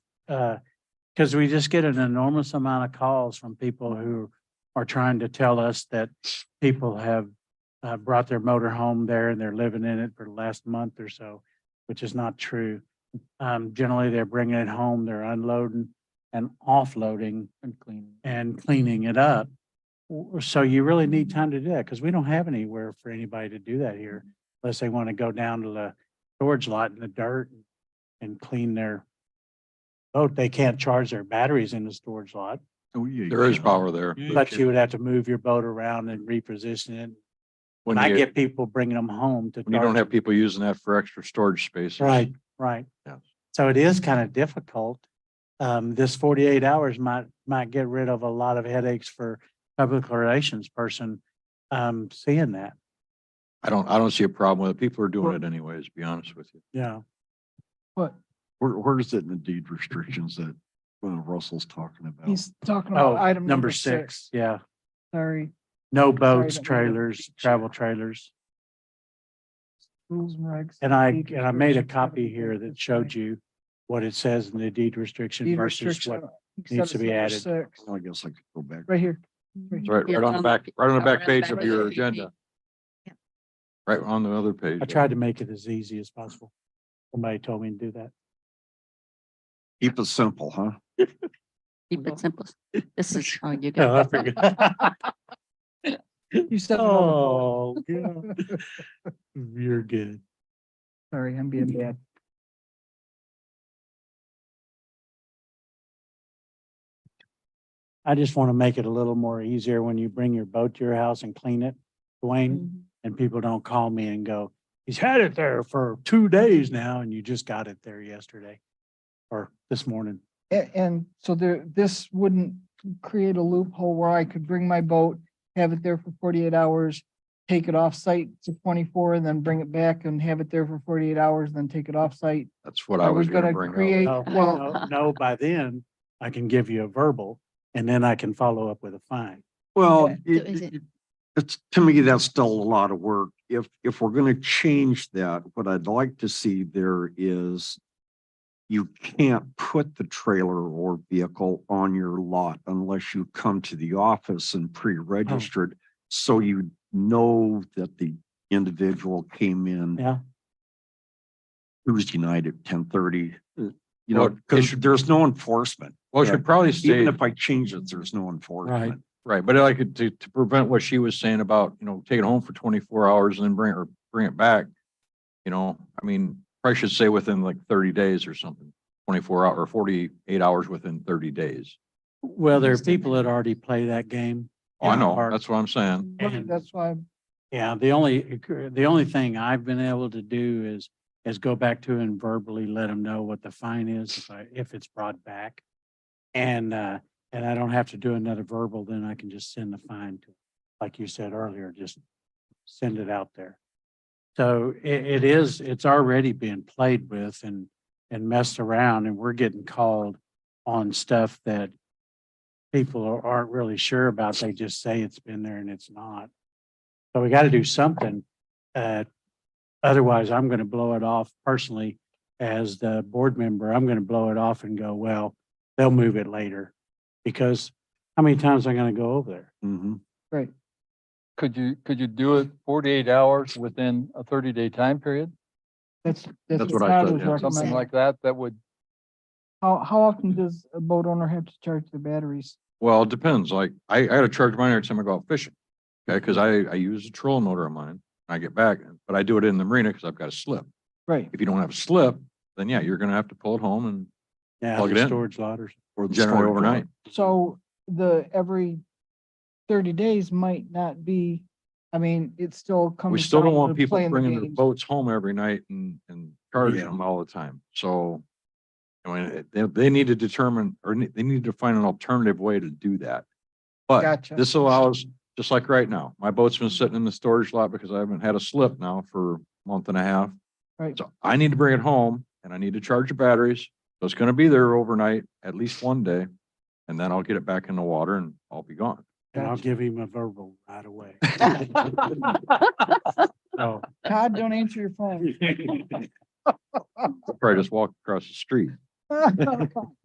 uh, because we just get an enormous amount of calls from people who are trying to tell us that people have uh, brought their motor home there and they're living in it for the last month or so, which is not true. Um, generally, they're bringing it home, they're unloading and offloading And cleaning. and cleaning it up. W- So you really need time to do that because we don't have anywhere for anybody to do that here Mm-hmm. unless they want to go down to the storage lot in the dirt and clean their boat. Oh, They can't charge their batteries in the storage lot, Oh, yeah, you There is can. power there. Yeah, but you would have to move your boat around and reposition it. When And I you- get people bringing them home to. when you don't charge have people using that for extra storage spaces. Right, right. Yeah. So it is kind of difficult. Um, this forty-eight hours might, might get rid of a lot of headaches for public relations person, um, seeing that, I don't, I don't see a problem with it. People are doing it anyways, to be honest with you. Yeah. But Where, where is it in the deed restrictions that uh, Russell's talking about? he's talking Oh, about item number six, yeah. Sorry, No Sorry, boats, don't mean to trailers, beat you travel up. trailers. rules and regs. And I, deed and I made a restrictions, gotta copy be here good, that that's showed right. you what it says in the deed restriction Deed versus restriction, what, I think you said needs to it's be number added. Six, I guess I could go back. right here. It's Right, right on the back, right on the back page of your agenda. Yeah. Right on the other page. I tried to make it as easy as possible. Somebody told me to do that. Keep it simple, huh? Keep it simple. This is how you Oh, I get. it. forgot. You said, another one. Oh, yeah. You're good. sorry, I'm being bad. I just want to make it a little more easier when you bring your boat to your house and clean it, Dwayne, and people don't call me and go, he's had it there for two days now and you just got it there yesterday or this morning. And, and so there, this wouldn't create a loophole where I could bring my boat, have it there for forty-eight hours, take it off-site to twenty-four, and then bring it back and have it there for forty-eight hours, then take it off-site. That's what I I was was gonna gonna bring create- up. No, well- no, no, by then I can give you a verbal and then I can follow up with a fine. Well, Okay. it- So is it- it- it's, to me, that's still a lot of work. If, if we're gonna change that, what I'd like to see there is you can't put the trailer or vehicle on your lot unless you come to the office Oh. and pre-registered. So you know that the individual came in. Yeah. Tuesday night at ten thirty, you know, Uh, Well, it because should- there's no enforcement. Well, it should probably stay, Even if I change it, there's no enforcement. right, but I could, to, to prevent what she was saying about, you know, take it home for twenty-four hours and then bring it, or bring it back. You know, I mean, probably should say within like thirty days or something, twenty-four hour, or forty-eight hours within thirty days. Well, there are Understand. people that already play that game. Oh, I in the know, park. that's what I'm saying. Right, And- That's why, Yeah, the only, the only thing I've been able to do is, is go back to and verbally let them know what the fine is if I, if it's brought back. And, uh, and I don't have to do another verbal, then I can just send the fine to, like you said earlier, just send it out there. So i- it is, it's already being played with and, and messed around and we're getting called on stuff that people are- aren't really sure about. They just say it's been there and it's not. So we got to do something. Uh, otherwise, I'm going to blow it off personally as the board member. I'm going to blow it off and go, well, they'll move it later. Because how many times am I going to go over there? Mhm. Could you, could you do it forty-eight hours within a thirty-day time period? that's, That's that's what I what I said, was yeah. Something recommending. like that, that would, How, how often does a boat owner have to charge the batteries? Well, it depends. Like, I, I gotta charge mine every time I go out fishing. Okay, cause I, I use a trolling motor on mine. I get back, but I do it in the marina because I've got a slip. Right. If you don't have a slip, then yeah, you're gonna have to pull it home and Yeah, Plug it the in. Storage lotters. Or the generate storage lot. overnight. So the, every thirty days might not be, I mean, it still comes. We still don't down want to people playing the bringing their games. boats home every night and, and charging Yeah. them all the time. So I mean, it- they, they need to determine, or ne- they need to find an alternative way to do that. But Gotcha. this allows, just like right now, my boat's been sitting in the storage lot because I haven't had a slip now for a month and a half. Right. So I need to bring it home and I need to charge the batteries. So it's gonna be there overnight, at least one day. And then I'll get it back in the water and I'll be gone. And I'll Gotcha. give him a verbal right away. So, Todd, don't answer your phone. Probably just walk across the street.